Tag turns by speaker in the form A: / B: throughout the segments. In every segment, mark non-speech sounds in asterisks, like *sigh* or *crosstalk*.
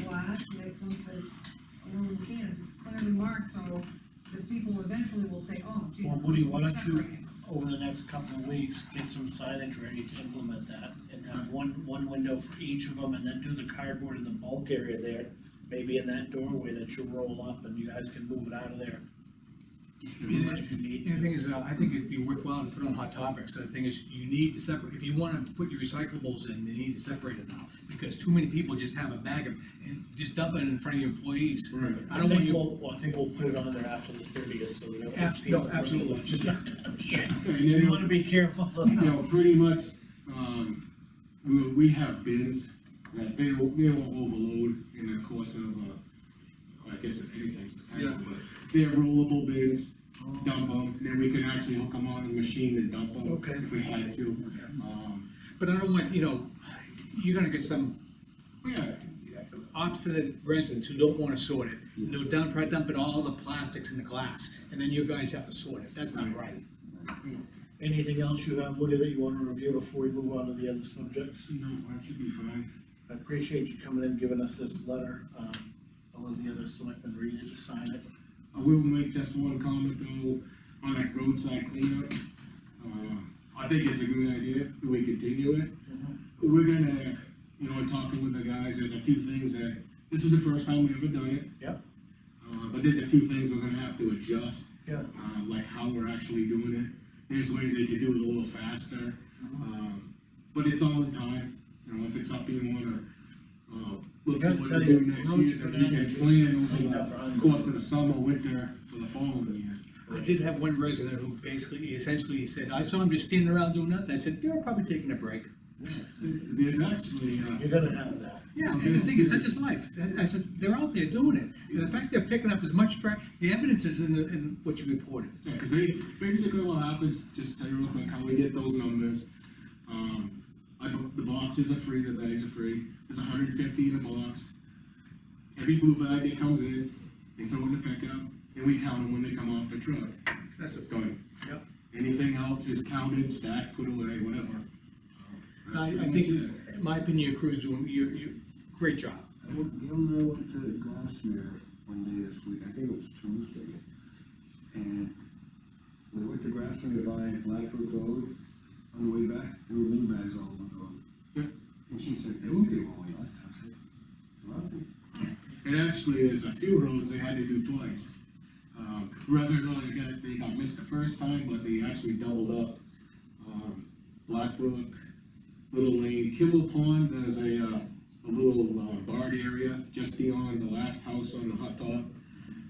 A: "Oh, apart, so the people eventually will say, oh, geez.
B: Well,
A: I'm
B: Woody,
A: supposed
B: why
A: to be
B: don't you,
A: separating."
B: over the next couple of weeks, get some signage ready to implement that? And have one, one window for each of them, and then do the cardboard in the bulk area there, maybe in that doorway that you roll up, and you guys can move it out of there. Unless you need
C: And the
B: to.
C: thing is, uh, I think it'd be worthwhile to put on hot topics, the thing is, you need to separate, if you wanna put your recyclables in, you need to separate it now. Because too many people just have a bag of, and just dump it in front of your employees.
D: Right.
C: I don't want
B: think
C: you,
B: we'll- Well, I think we'll put it on there after the thirtieth, so we don't.
C: Abs- no, absolutely.
B: Just- Yeah,
D: And you
B: *laughs* you
D: know,
B: wanna be
C: *laughs*
B: careful.
D: you know, pretty much, um, we, we have bins that they will, they will overload in the course of, uh, I guess if anything's potential, but they're rollable bins, dump them, then we can actually hook them on the machine and dump them.
B: Okay.
D: If we had to, um,
C: but I don't want, you know, you're gonna get some
D: yeah,
C: obstinate residents who don't wanna sort it. They'll dump, try to dump it all the plastics in the glass, and then you guys have to sort it, that's not right.
B: Anything else you have, Woody, that you wanna review before we move on to the other subjects?
D: so, no, that should be fine.
B: I appreciate you coming in, giving us this letter, um, I'll let the other selectmen read it, sign it.
D: I will make just one comment though, on that roadside cleanup. Uh, I think it's a good idea, that we continue it.
B: Mm-hmm.
D: We're gonna, you know, talking with the guys, there's a few things that, this is the first time we've ever done it.
B: Yep.
D: Uh, but there's a few things we're gonna have to adjust.
B: Yeah.
D: Uh, like how we're actually doing it, there's ways they could do it a little faster.
B: Mm-hmm.
D: Um, but it's all in time, you know, if it's something you wanna, uh, look
B: gotta
D: forward
B: tell
D: to
B: you,
D: do next
B: roads
D: year,
B: are
D: that we
B: gonna
D: can
B: just
D: plan
B: clean up
D: over
B: around
D: the course of the summer, winter, for the following year.
C: I did have one resident who basically, essentially said, I saw him just standing around doing nothing, I said, you're probably taking a break.
D: There's actually, uh,
B: You're gonna have that.
C: Yeah, and the thing is, that's just life. I said, they're out there doing it. And the fact they're picking up as much trash, the evidence is in, the- in what you reported.
D: Yeah, cause they, basically what happens, just tell you real quick how we get those numbers. Um, I, bu- the boxes are free, the bags are free, there's hundred and fifty in a box. Every blue bag that comes in, they throw in the pickup, and we count them when they come off the truck,
C: That's what,
D: done.
C: Yep.
D: Anything else is counted, stacked, put away, whatever.
C: I,
D: That's
C: I
D: pretty
C: think,
D: much it.
C: in my opinion, your crew's doing, you, you, great job.
E: Well, Gail and I went to Glassmere one day this week, I think it was Tuesday, and we went to Glassmere by Blackbrook Road, on the way back, there were bean bags all over the road.
D: Yeah.
E: And she said, they won't be one way left, I said, well, they
D: And actually, there's a few roads they had to do twice. Um, whether or not they got, they got missed the first time, but they actually doubled up. Um, Blackbrook, Little Lane, Kibble Pond, there's a, uh, a little uh, barred area just beyond the last house on the hot dog.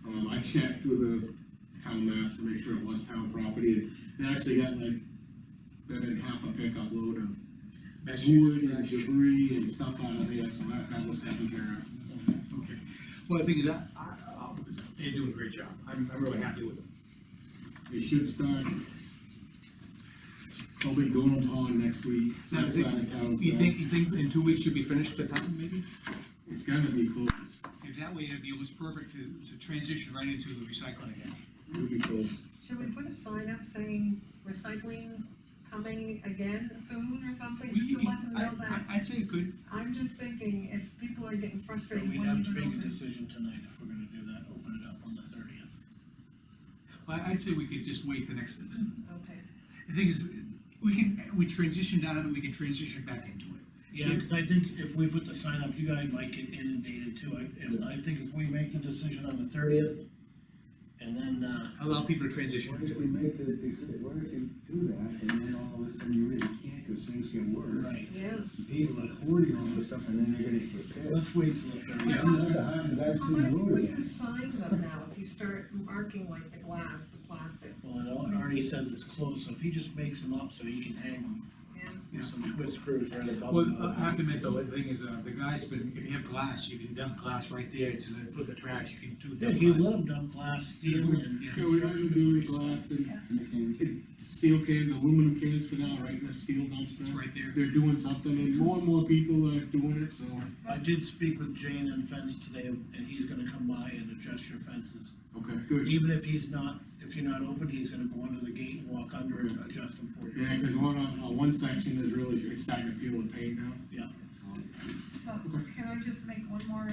D: Um, I checked with the town maps to make sure it was town property, and they actually got like, they did half a pickup load of wood and
C: Massachusetts.
D: debris and stuff out of there, so that, that was taken care of.
C: Okay. Well, the thing is, I, I, I- um, they're doing a great job. I'm, I'm really happy with them.
D: It should start probably going upon next week, so
C: Now,
D: that's
C: you
D: out of town.
C: You think, you think in two weeks you'll be finished the time, maybe?
D: It's gonna be close,
C: If that way, it'd be almost perfect to, to transition right into the recycling again.
D: it'll be close.
A: Should we put a sign up saying recycling coming again soon or something, just to let them
C: I-
A: know that?
C: I- I'd say you could,
A: I'm just thinking, if people are getting frustrated,
B: We
A: when you
B: have to
A: don't
B: make a
A: open.
B: decision tonight if we're gonna do that, open it up on the thirtieth.
C: I, I'd say we could just wait the next,
A: Okay,
C: the thing is, we can, we transitioned out of it, we can transition back into it.
B: Yeah, cause I think if we put the sign up, you guys might get inundated too, I, if, I think if we make the decision on the thirtieth, and then, uh,
C: Allow people to
E: What if
C: transition.
E: we make the, they said, what if you do that, and then all of a sudden you really can't, cause things get worse.
B: right,
A: yeah.
E: People are hoarding all this stuff, and then they're gonna get pissed.
B: let's wait till the
E: You
B: thirtieth.
E: have to hire the guys
A: How
E: who
A: about if you
E: do
A: put
E: it.
A: some signs up now, if you start marking like the glass, the plastic,
B: Well, it al- already says it's closed, so if he just makes them up so he can hang them
A: and
C: Yeah.
B: with some twist screws right above
C: Well,
D: uh,
C: I- I
B: them.
C: have to admit though, the thing is, uh, the guy's been, if you have glass, you can dump glass right there to then put the trash, you can do
B: Yeah,
C: dump
B: he
C: glass.
B: let them dump glass, steel and.
C: Yeah.
D: Okay, we're not
B: construction
D: gonna do any
B: debris, so-
D: glass and
E: Making-
D: and steel cans, aluminum cans for now, right, in the steel
C: It's
D: dumpster.
C: right there.
D: They're doing something, and more and more people are doing it, so.
B: I did speak with Jane and Fence today, and he's gonna come by and adjust your fences.
D: Okay, good.
B: Even if he's not, if you're not open, he's gonna go under the gate and walk under and adjust them for you.
D: Yeah, cause one, on, uh, one section is really, it's starting to peel the paint now.
B: Yeah.
A: so, can I just make one more